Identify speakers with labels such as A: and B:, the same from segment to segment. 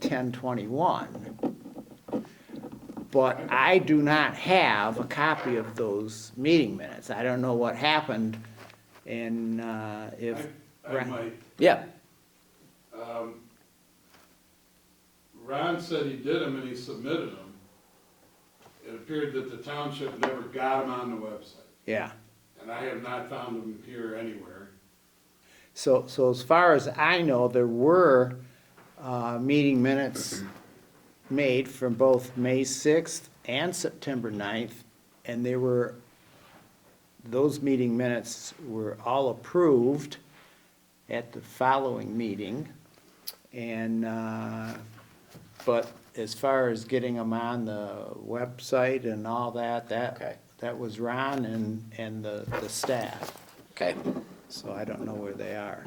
A: ten twenty-one. But I do not have a copy of those meeting minutes. I don't know what happened and, uh, if.
B: I I might.
A: Yeah,
B: Um, Ron said he did them and he submitted them. It appeared that the township never got them on the website,
A: yeah.
B: and I have not found them here anywhere.
A: So, so as far as I know, there were, uh, meeting minutes made from both May sixth and September 9th, and they were, those meeting minutes were all approved at the following meeting. And, uh, but as far as getting them on the website and all that,
C: Okay.
A: that, that was Ron and, and the, the staff.
C: Okay.
A: So I don't know where they are.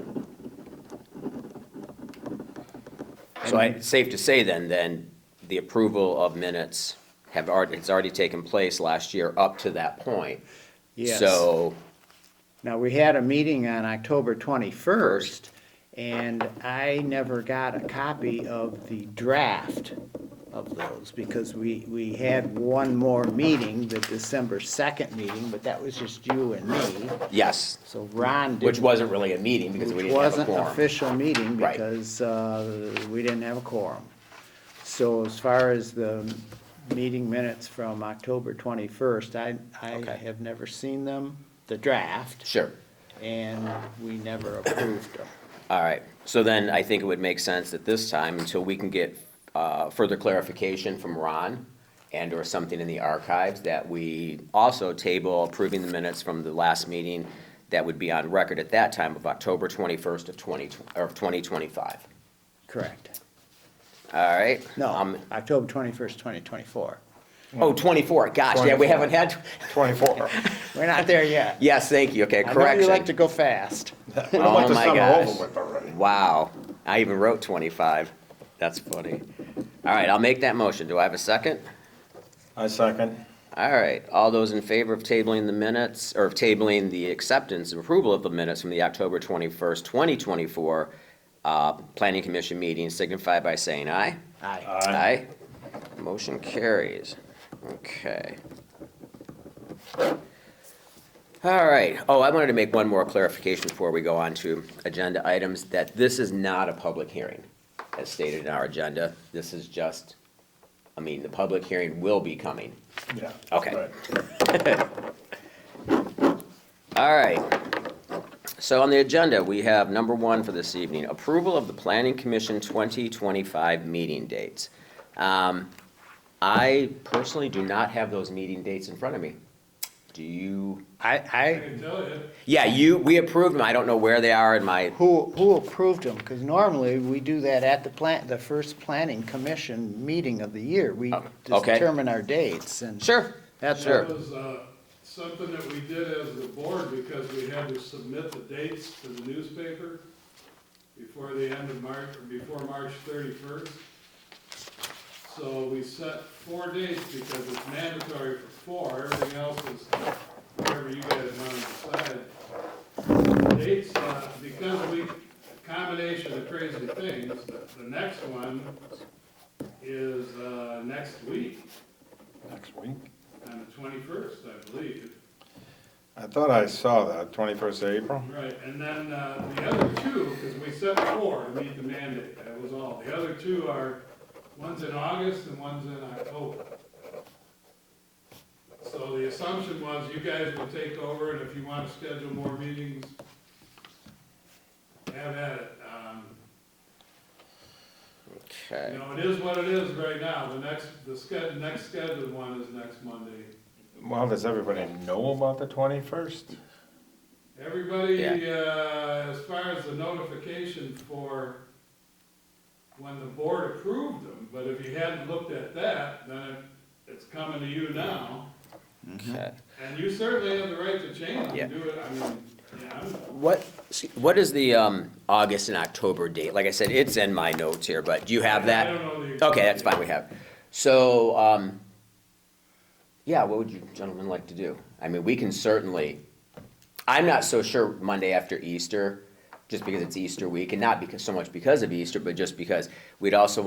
C: So I, it's safe to say then, then, the approval of minutes have already, it's already taken place last year up to that point.
A: Yes.
C: So,
A: Now, we had a meeting on October twenty-first, and I never got a copy of the draft of those, because we, we had one more meeting, the December second meeting, but that was just you and me,
C: yes,
A: so Ron didn't.
C: which wasn't really a meeting because
A: Which
C: we didn't have a
A: wasn't an
C: quorum.
A: official meeting
C: Right.
A: because uh, we didn't have a quorum. So as far as the meeting minutes from October 21st, I, I
C: Okay.
A: have never seen them, the draft,
C: Sure,
A: and we never approved them.
C: all right. So then I think it would make sense at this time, until we can get, uh, further clarification from Ron and or something in the archives, that we also table approving the minutes from the last meeting that would be on record at that time of October twenty-first of twenty, or of twenty twenty-five.
A: Correct.
C: All right.
A: No,
C: Um,
A: October 21st, 2024.
C: Oh, 24, gosh, yeah, we haven't had,
D: Twenty-four.
C: Oh
A: We're not there yet.
C: yes, thank you, okay,
A: I know you like to
C: correction.
A: go fast.
D: I want
C: Oh,
D: the
C: my
D: summer
C: gosh.
D: over with already.
C: Wow, I even wrote 25, that's funny. All right, I'll make that motion, do I have a second?
D: I second.
C: All right, all those in favor of tabling the minutes, or of tabling the acceptance and approval of the minutes from the October 21st, 2024 uh, Planning Commission meeting signify by saying aye.
A: Aye.
C: Aye. Motion carries. Okay. All right. Oh, I wanted to make one more clarification before we go on to agenda items, that this is not a public hearing, as stated in our agenda. This is just, I mean, the public hearing will be coming.
D: Yeah.
C: Okay.
D: right.
C: All right. So on the agenda, we have number one for this evening, approval of the Planning Commission 2025 meeting dates. Um, I personally do not have those meeting dates in front of me. Do you?
A: I,
B: I
A: I,
B: can tell you,
C: Yeah, you, we approved them. I don't know where they are in my,
A: who, who approved them? Because normally we do that at the plant, the first planning commission meeting of the year. We
C: Oh, okay.
A: determine our dates and.
C: sure.
A: That's
C: Sure.
B: that was uh, something that we did as the board because we had to submit the dates to the newspaper before the end of March, or before March thirty-first. So we set four dates because it's mandatory for four, everything else is whatever you guys want to decide. Dates, uh, because we, combination of crazy things, the- the next one is uh, next week
D: Next week.
B: on the twenty-first, I believe.
D: I thought I saw that, twenty-first of April.
B: Right, and then, uh, the other two, because we set four to meet the mandate, that was all. The other two are, one's in August and one's in October. So the assumption was you guys will take over, and if you want to schedule more meetings, have at it. Um, You
C: Okay.
B: know, it is what it is right now. The next, the sched, next scheduled one is next Monday.
D: Well, does everybody know about the twenty-first?
B: Everybody,
C: Yeah.
B: uh, as far as the notification for when the board approved them, but if you hadn't looked at that, then it- it's coming to you now.
A: Mm-hmm.
C: Okay.
B: And you certainly have the right to change
C: Yeah.
B: and do it, I mean, yeah, I'm-
C: What, what is the um, August and October date? Like I said, it's in my notes here, but do you have that?
B: I don't know the. exact
C: Okay, that's fine, we have. So, um, yeah, what would you gentlemen like to do? I mean, we can certainly, I'm not so sure Monday after Easter, just because it's Easter week, and not because, so much because of Easter, but just because we'd also